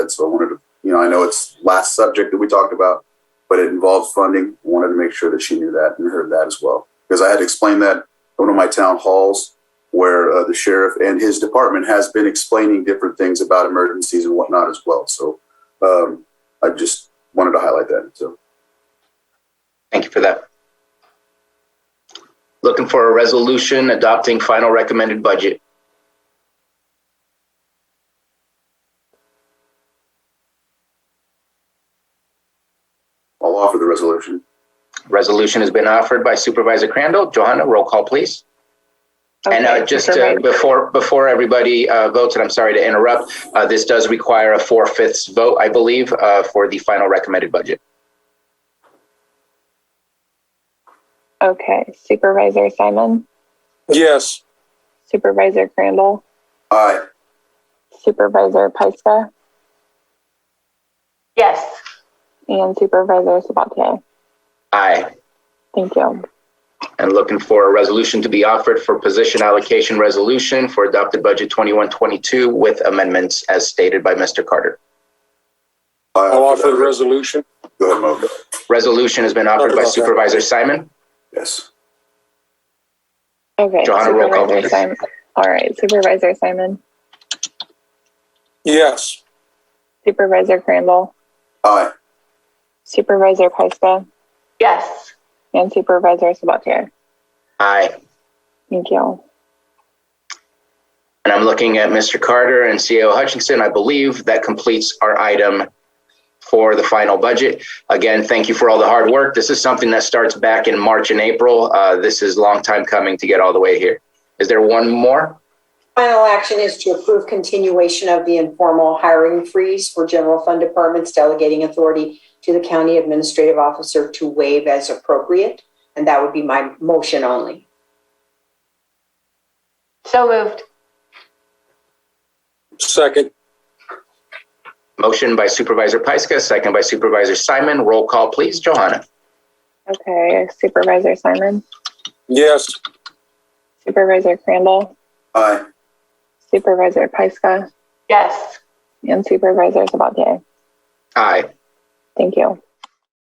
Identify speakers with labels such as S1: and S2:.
S1: it. So I wanted to, you know, I know it's last subject that we talked about, but it involves funding. I wanted to make sure that she knew that and heard that as well. Because I had to explain that at one of my town halls where uh, the sheriff and his department has been explaining different things about emergencies and whatnot as well. So um, I just wanted to highlight that. So
S2: Thank you for that. Looking for a resolution adopting final recommended budget.
S1: I'll offer the resolution.
S2: Resolution has been offered by Supervisor Crandall. Johanna, roll call, please. And uh,
S3: Okay,
S2: just
S3: Mr.
S2: uh,
S3: Mayor.
S2: before, before everybody uh, votes, and I'm sorry to interrupt, uh, this does require a four-fifths vote, I believe, uh, for the final recommended budget.
S3: Okay, Supervisor Simon,
S4: Yes.
S3: Supervisor Crandall,
S1: Aye.
S3: Supervisor Pyska,
S5: Yes.
S3: and Supervisor Sabatier.
S2: Aye.
S3: Thank you.
S2: and looking for a resolution to be offered for position allocation resolution for adopted budget 2122 with amendments as stated by Mr. Carter.
S1: I
S4: I'll offer the resolution.
S1: Go ahead, Mo.
S2: Resolution has been offered by Supervisor Simon.
S1: Yes.
S3: Okay.
S2: Johanna, roll call,
S3: Supervisor
S2: please.
S3: Simon. All right, Supervisor Simon,
S4: Yes.
S3: Supervisor Crandall,
S1: Aye.
S3: Supervisor Pyska,
S5: Yes.
S3: and Supervisor Sabatier.
S2: Aye.
S3: Thank you.
S2: And I'm looking at Mr. Carter and CEO Hutchinson. I believe that completes our item for the final budget. Again, thank you for all the hard work. This is something that starts back in March and April. Uh, This is a long time coming to get all the way here. Is there one more?
S6: Final action is to approve continuation of the informal hiring freeze for general fund departments delegating authority to the county administrative officer to waive as appropriate. And that would be my motion only.
S5: So moved.
S4: Second.
S2: Motion by Supervisor Pyska, second by Supervisor Simon. Roll call, please. Johanna?
S3: Okay, Supervisor Simon,
S4: Yes.
S3: Supervisor Crandall,
S1: Aye.
S3: Supervisor Pyska,
S5: Yes.
S3: and Supervisor Sabatier.
S2: Aye.
S3: Thank you.